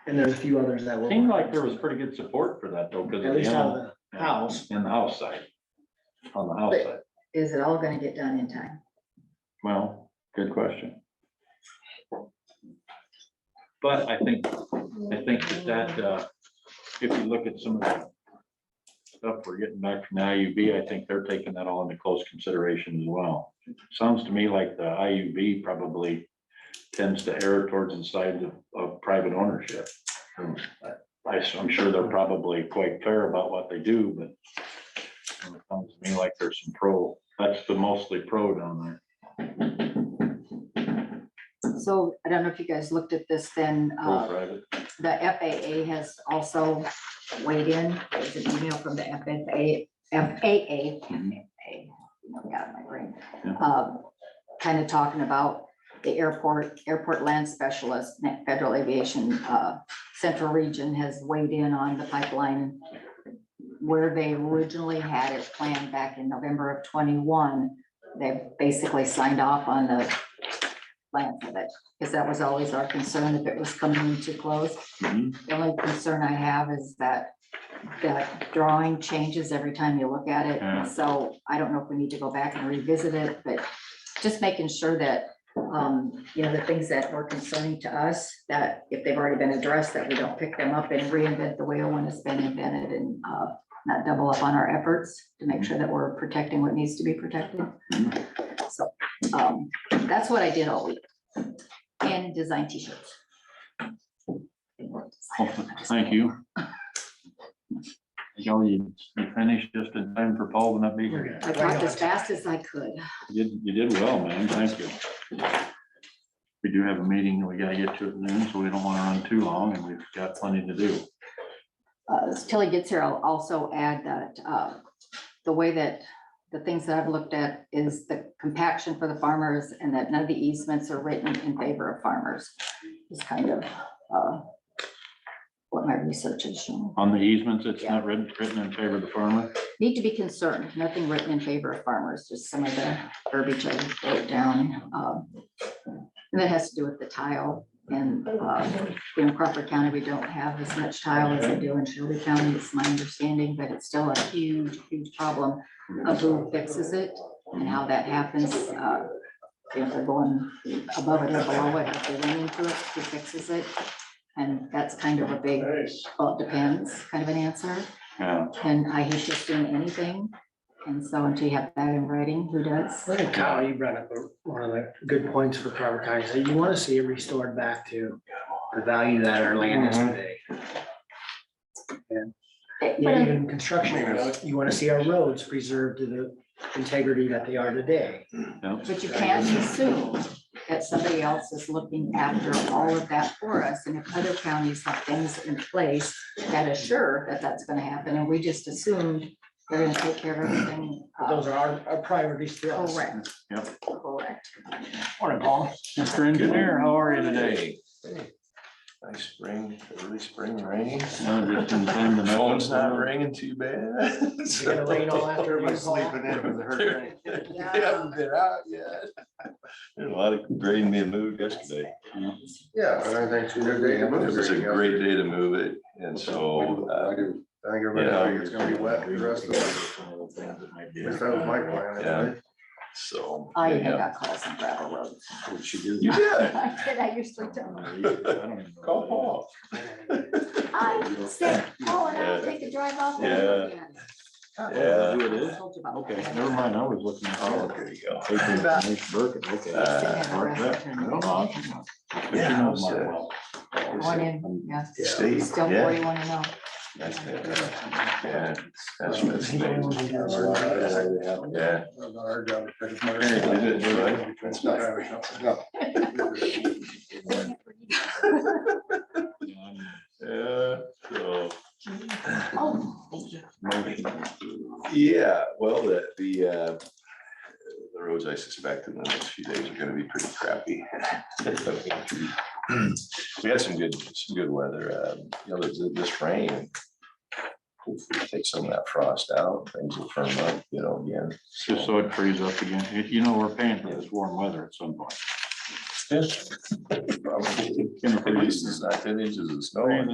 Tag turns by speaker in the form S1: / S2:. S1: and there's a few others that will.
S2: Seemed like there was pretty good support for that though, because.
S1: At least out of the house.
S2: In the house side, on the house
S3: But-
S2: side.
S3: Is it all gonna get done in time?
S2: Well, good question. But I think, I think that that, uh, if you look at some of the stuff we're getting back from the IUB, I think they're taking that all into close consideration as well. Sounds to me like the IUB probably tends to err towards the side of, of private ownership. Um, I, am sure they're probably quite fair about what they do, but it sounds to me like there's some pro, that's the mostly pro down there.
S3: So I don't know if you guys looked at this then,
S2: Go
S3: uh,
S2: private.
S3: the FAA has also weighed in. There's an email from the FFA, FAA.
S2: Mhm.
S3: FAA, no, got my brain. Um,
S2: Yeah.
S3: Kind of talking about the airport, airport land specialist, Net Federal Aviation uh, Central Region has weighed in on the pipeline where they originally had it planned back in November of twenty-one. They've basically signed off on the plan for that, because that was always our concern, if it was coming too close.
S2: Mhm.
S3: The only concern I have is that, that drawing changes every time you look at
S2: Yeah.
S3: it. So I don't know if we need to go back and revisit it, but just making sure that, um, you know, the things that were concerning to us, that if they've already been addressed, that we don't pick them up and reinvent the wheel when it's been invented and, uh, not double up on our efforts to make sure that we're protecting what needs to be protected. So, um, that's what I did all week. And design t-shirts.
S2: Thank you. Joe, you you finished just in time for Paul to not be here.
S3: I talked as fast as I could.
S2: You did, you did well, man. Thank you. We do have a meeting that we gotta get to at noon, so we don't wanna run too long and we've got plenty to do.
S3: Uh, Till he gets here, I'll also add that uh, the way that the things that I've looked at is the compaction for the farmers and that none of the easements are written in favor of farmers. Is kind of uh, what my research is showing.
S2: On the easements, it's not written, written in favor of the farmer.
S3: Need to be concerned, nothing written in favor of farmers, just some of the verbiage I wrote down. um, And that has to do with the tile and uh, in Crawford County, we don't have as much tile as they do in Shelby County, it's my understanding, but it's still a huge, huge problem of who fixes it and how that happens. uh, If they're going above it or below it, if they're running to it, who fixes it? And that's kind of a big, well, it depends, kind of an answer.
S2: Yeah,
S3: And I hate just doing anything. And so until you have that in writing, who does?
S1: I think Kyle, you brought up a- one of the good points for Carver County, so you wanna see it restored back to the value that our land is today. Yeah,
S3: But
S1: even construction, you wanna see our roads preserved to the integrity that they are today.
S2: yeah.
S3: you can't assume that somebody else is looking after all of that for us. And if other counties have things in place that assure that that's gonna happen, and we just assumed they're gonna take care of everything. uh,
S1: Those are our, our priorities to us.
S3: Correct.
S2: Yep.
S3: Correct.
S1: Morning, Paul.
S2: Mr. Engineer, how are you today?
S4: Nice spring, early spring rain.
S2: No, just in time to-
S4: Phone's not ringing too bad.
S1: Is it gonna rain all afternoon,
S4: Everybody's
S1: Paul?
S4: sleeping in with the hurricane. They
S3: Yeah.
S4: haven't been out yet.
S5: There's a lot of great me move yesterday.
S6: Yeah, and I think it's a good day to move
S5: It was a
S6: everything
S5: great
S6: else.
S5: day to move it and so,
S6: I
S5: uh,
S6: do. I think
S5: you know,
S6: everybody thinks it's gonna be wet the rest of the, at least that was my plan.
S5: Yeah. so.
S3: I even
S5: yeah.
S3: got calls on gravel roads.
S2: What'd she do?
S5: You did.
S3: I did, I usually don't.
S5: Call Paul.
S3: I said, oh, and I'll take a drive off.
S5: Yeah.
S2: Yeah.
S5: Yeah.
S2: Who it is?
S3: Told you about
S2: Okay,
S3: that.
S2: never mind, I was looking at
S5: Oh,
S2: all of it.
S5: there you go.
S2: Okay.
S5: Uh,
S2: Mark that. I don't know. But you
S5: Yeah,
S2: know
S5: I was,
S2: Mark
S5: uh,
S2: well.
S3: One in, yeah.
S5: State,
S3: Still
S5: yeah.
S3: forty-one and oh.
S5: That's it. Yeah, that's what it's named. Yeah.
S6: Not our job to fix my-
S5: Hey, you did it, right?
S6: It's not our job. No.
S5: Yeah, so.
S3: Oh, thank you.
S5: Yeah, well, the, the, uh, the roads I suspect in the next few days are gonna be pretty crappy. We had some good, some good weather, um, you know, this, this rain. Hopefully take some of that frost out, things will firm up, you know, again.
S2: Just so it frees up again. You- You know, we're paying for this warm weather at some point.
S5: Probably. At least it's not ten inches of snow. on it.